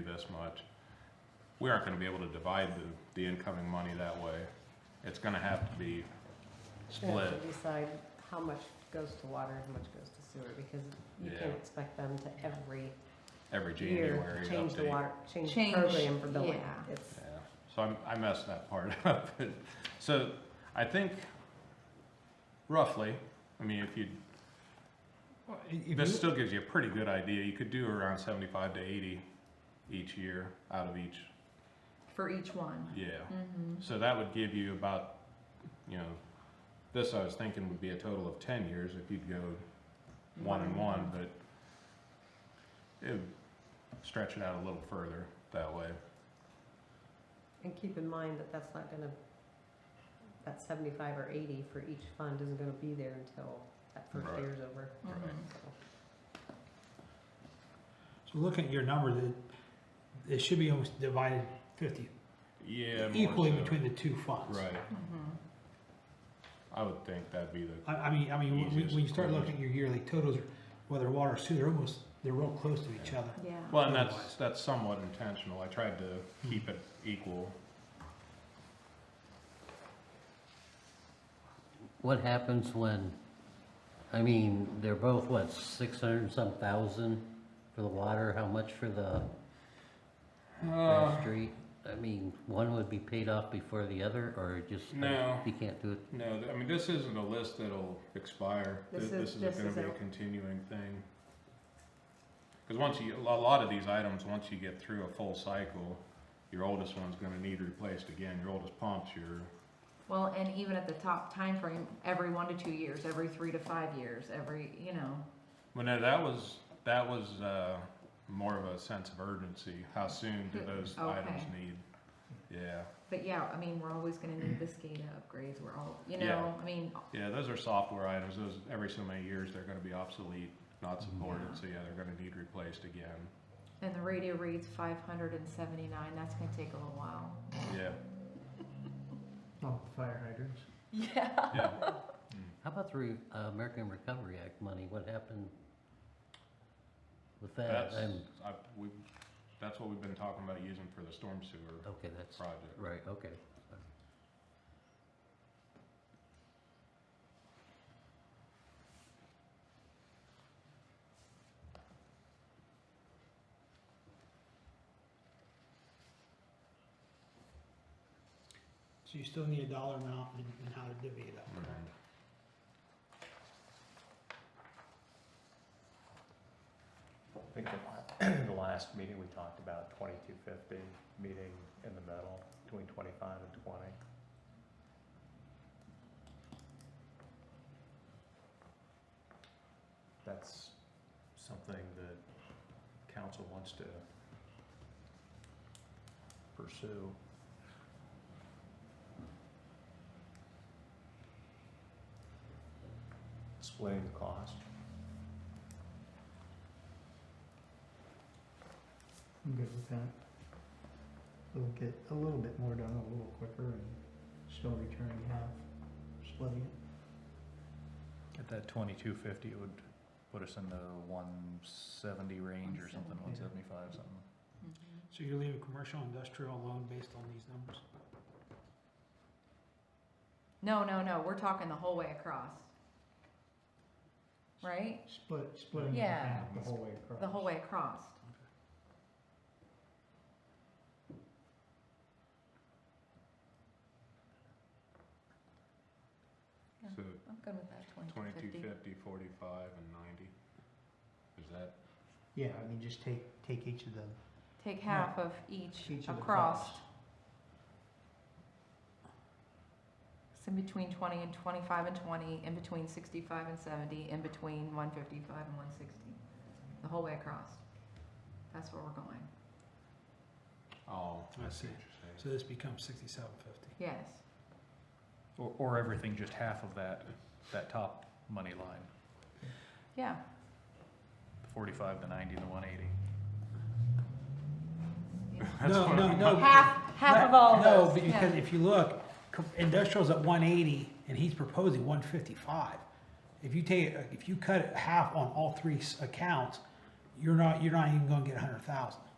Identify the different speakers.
Speaker 1: this much. We aren't gonna be able to divide the, the incoming money that way. It's gonna have to be
Speaker 2: They have
Speaker 1: split.
Speaker 2: to decide how much goes to water and how much goes to sewer, because you can't
Speaker 1: Yeah.
Speaker 2: expect them to every
Speaker 1: every
Speaker 2: year
Speaker 1: January
Speaker 2: change the
Speaker 1: update.
Speaker 2: water, change the
Speaker 3: Change,
Speaker 2: program for billing.
Speaker 3: yeah.
Speaker 2: It's,
Speaker 1: Yeah, so I'm- I messed that part up. So I think roughly, I mean, if you,
Speaker 4: Well, i- if
Speaker 1: this
Speaker 4: you-
Speaker 1: still gives you a pretty good idea. You could do around seventy-five to eighty each year out of each,
Speaker 3: for each one.
Speaker 1: yeah.
Speaker 3: Mm-hmm.
Speaker 1: So that would give you about, you know, this I was thinking would be a total of ten years if you'd go one and one,
Speaker 4: Mm-hmm.
Speaker 1: but it would stretch it out a little further that way.
Speaker 2: and keep in mind that that's not gonna, that seventy-five or eighty for each fund isn't gonna be there until that first
Speaker 1: Right.
Speaker 2: year's over.
Speaker 3: Mm-hmm.
Speaker 1: Right.
Speaker 4: So looking at your number, that it should be almost divided fifty,
Speaker 1: Yeah. more
Speaker 4: equally
Speaker 1: so.
Speaker 4: between the two funds.
Speaker 1: Right.
Speaker 3: Mm-hmm.
Speaker 1: I would think that'd be the
Speaker 4: I, I mean, I mean, when- when,
Speaker 1: Easiest
Speaker 4: when you start
Speaker 1: approach.
Speaker 4: looking at your yearly totals, whether water or sewer, they're almost, they're real close to each other.
Speaker 3: Yeah.
Speaker 1: Well, and that's,
Speaker 4: Otherwise.
Speaker 1: that's somewhat intentional. I tried to keep it equal.
Speaker 5: What happens when, I mean, they're both, what, six hundred and some thousand for the water, how much for the
Speaker 1: Uh,
Speaker 4: Uh,
Speaker 5: grass street? I mean, one would be paid off before the other, or it just?
Speaker 1: No.
Speaker 5: You can't do it,
Speaker 1: no, th- I mean, this isn't a list that'll expire. Th-
Speaker 2: This is-
Speaker 1: This is
Speaker 2: this
Speaker 1: gonna
Speaker 2: is
Speaker 1: be a
Speaker 2: a-
Speaker 1: continuing thing. Cause once you, a lo- lot of these items, once you get through a full cycle, your oldest one's gonna need replaced again. Your oldest pumps, your,
Speaker 3: Well, and even at the top time frame, every one to two years, every three to five years, every, you know,
Speaker 1: well, no, that was, that was, uh, more of a sense of urgency. How soon do those items
Speaker 3: Okay.
Speaker 1: need? Yeah.
Speaker 3: but yeah, I mean, we're always gonna need this SCADA upgrades, we're all, you know,
Speaker 1: Yeah.
Speaker 3: I mean,
Speaker 1: Yeah, those are software items, those, every so many years, they're gonna be obsolete, not supported, so yeah, they're gonna need replaced again,
Speaker 3: and the radio reads five hundred and seventy-nine, that's gonna take a little while.
Speaker 1: yeah,
Speaker 4: Oh, fire hydrants.
Speaker 3: Yeah.
Speaker 1: yeah.
Speaker 5: how about the Re- uh, American Recovery Act money, what happened with that?
Speaker 1: That's,
Speaker 5: I'm-
Speaker 1: I, we, that's what we've been talking about using for the storm sewer
Speaker 5: Okay, that's,
Speaker 1: project.
Speaker 5: right, okay.
Speaker 4: So you still need a dollar amount and, and how to divvy it up.
Speaker 1: Mhm.
Speaker 6: I think the la- the last meeting, we talked about twenty-two fifty, meeting in the middle, between twenty-five and twenty. That's something that council wants to pursue. Splitting the cost.
Speaker 7: I'm good with that. We'll get a little bit more done a little quicker and still returning half, splitting it.
Speaker 6: At that twenty-two fifty, it would put us in the one seventy range or something, one
Speaker 7: 170.
Speaker 6: seventy-five, something.
Speaker 3: Mm-hmm.
Speaker 4: So you're leaving commercial and industrial alone based on these numbers?
Speaker 3: No, no, no, we're talking the whole way across. Right?
Speaker 7: Split, splitting it in
Speaker 3: Yeah.
Speaker 7: half the whole way across.
Speaker 3: The whole way across. Yeah.
Speaker 1: So
Speaker 3: I'm good with that, twenty-two
Speaker 1: twenty-two
Speaker 3: fifty.
Speaker 1: fifty, forty-five, and ninety, is that,
Speaker 7: Yeah, I mean, just take, take each of the,
Speaker 3: Take half of each
Speaker 7: each of the
Speaker 3: across,
Speaker 7: costs.
Speaker 3: It's in between twenty and twenty-five and twenty, in between sixty-five and seventy, in between one fifty-five and one sixty. The whole way across. That's where we're going.
Speaker 1: oh,
Speaker 4: I
Speaker 1: I see
Speaker 4: see.
Speaker 1: what you're saying.
Speaker 4: So this becomes sixty-seven fifty.
Speaker 3: Yes.
Speaker 6: Or, or everything, just half of that, that top money line,
Speaker 3: Yeah.
Speaker 6: the forty-five, the ninety, the one eighty.
Speaker 4: No, no, no.
Speaker 3: Half, half of all
Speaker 4: No,
Speaker 3: those.
Speaker 4: but
Speaker 3: yeah.
Speaker 4: because if you look, co- industrial's at one eighty and he's proposing one fifty-five. If you take, if you cut it half on all three s- accounts, you're not, you're not even gonna get a hundred thousand.